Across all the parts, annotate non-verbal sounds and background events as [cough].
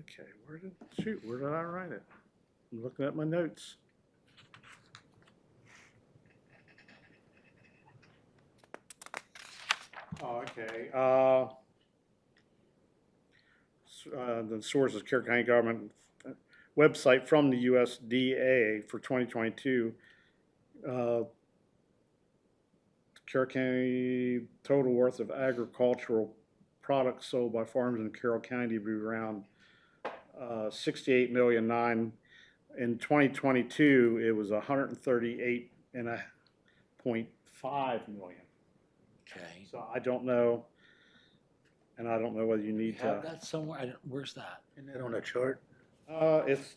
Okay, where did, shoot, where did I write it? I'm looking at my notes. Oh, okay, uh, s- uh, the source is Carroll County Government uh, website from the USDA for twenty twenty-two. Uh, Carroll County total worth of agricultural products sold by farms in Carroll County to be around uh, 68 million nine. In 2022, it was 138 and a point five million. Okay. So I don't know, and I don't know whether you You need have to. that somewhere? I don't, where's that? Isn't that on a chart? Uh, It's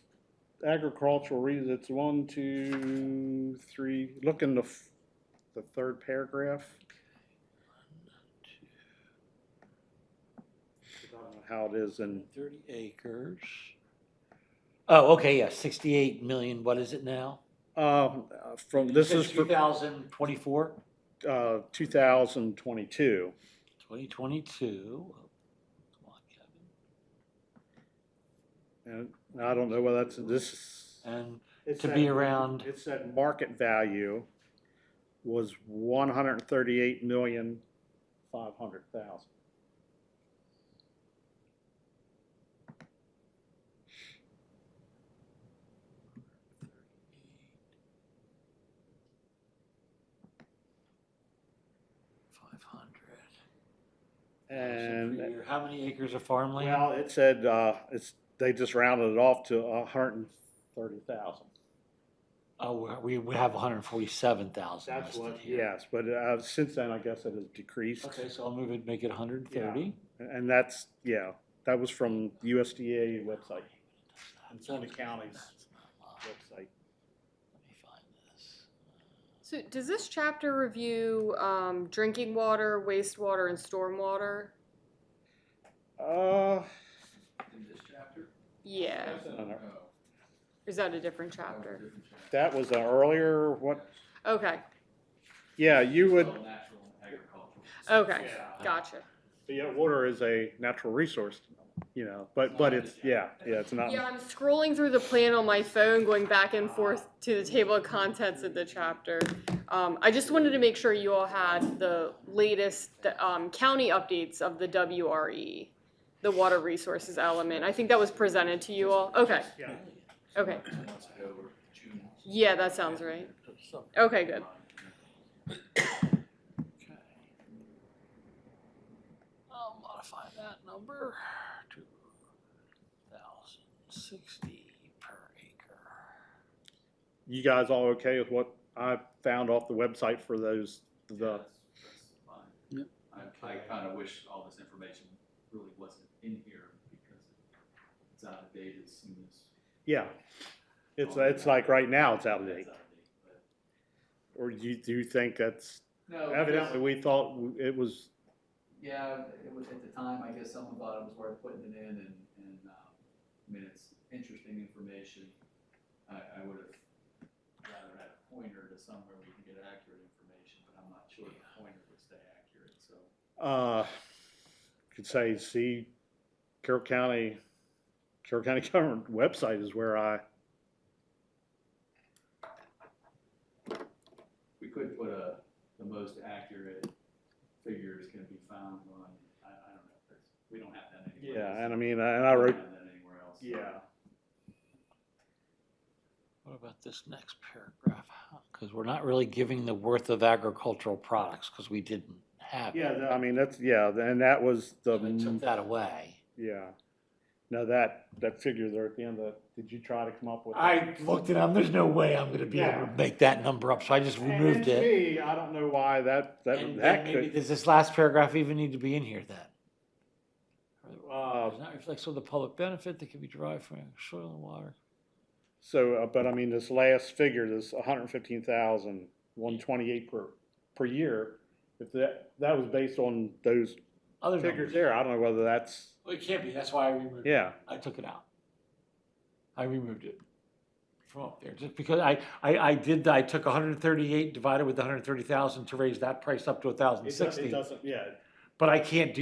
agricultural reasons, it's one, two, three, look in the, f- the third paragraph. I don't know How it is in Thirty acres. Oh, okay, yeah, sixty-eight million, what is it now? Um, uh, from, this is Two for, thousand twenty-four? uh, two thousand twenty-two. Twenty twenty-two. Come on, Kevin. And I don't know whether that's, this is. And it to be said- around- It said market value was one hundred and thirty-eight million, five hundred thousand. five hundred. And, How many acres of farmland? well, it said, uh, it's, they just rounded it off to a hundred and thirty thousand. Oh, we're- we, we have hundred and forty-seven thousand That's listed what, here. yes, but, uh, since then, I guess it has decreased. Okay, so I'll move it, make it hundred and thirty. And that's, yeah, that was from USDA website, It's on the counties. website. Let me find this. So does this chapter review um, drinking water, wastewater, and stormwater? Uh, In this chapter? Yeah, That's a- No, no. oh, is that a different that was a chapter? different chapter. that was an earlier, what, Okay, yeah, you would, It's all natural agricultural. okay, Yeah. gotcha. yeah, water is a natural resource, you know, but, but it's, yeah, yeah, it's not. Yeah, I'm scrolling through the plan on my phone, going back and forth to the table of contents of the chapter. Um, I just wanted to make sure you all had the latest um, county updates of the WRE, the water resources element. I think that was presented to you all. Okay, Yeah. okay. Two months ago or June. Yeah, that sounds right. Something, Okay, [coughs] good. okay. I'll modify that number to thousand sixty per acre. You guys all okay with what I found off the website for those, Yeah, the, that's- that's fine. I, I kind of wish all this information really wasn't in here because it's out of date as soon as. yeah. Oh, It's, it's like right now, it's out of date. It's out of date, but- Or do you, do you think that's, No. because- evidently, we thought it was, Yeah, it was at the time, I guess someone thought it was worth putting it in and, and, um, I mean, it's interesting information. I, I would have rather had a pointer to somewhere we can get accurate information, but I'm not sure the pointer would stay accurate, so. uh, could say, see, Carroll County, Carroll County [laughs] government website is where I, We could put a, the most accurate figures can be found on, I, I don't know, that's, we don't have that anywhere else. yeah, and I mean, and I We wrote, don't have that anywhere else. Yeah. What about this next paragraph? Because we're not really giving the worth of agricultural products, because we didn't have it. yeah, I mean, that's, yeah, and that was So They the, took that away. yeah. Now that, that figure there at the end, of- did you try to come up with? I looked at them, there's no way I'm gonna be able to Yeah. make that number up, so I just removed And to it. me, I don't know why that, that, And then that maybe, could, does this last paragraph even need to be in here then? uh, Does not reflect on the public benefit that can be derived from soil and water. so, uh, but I mean, this last figure, this hundred and fifteen thousand, one twenty-eight per, per year, if that, that was based on those Other figures numbers. there, I don't know whether that's, Well, it can't be, that's why I removed it. yeah, I took it out. I removed it from up there, just because I, I, I did, I took hundred and thirty-eight divided with hundred and thirty thousand to raise that price up to it thousand does- it sixty. doesn't, yeah, But I can't do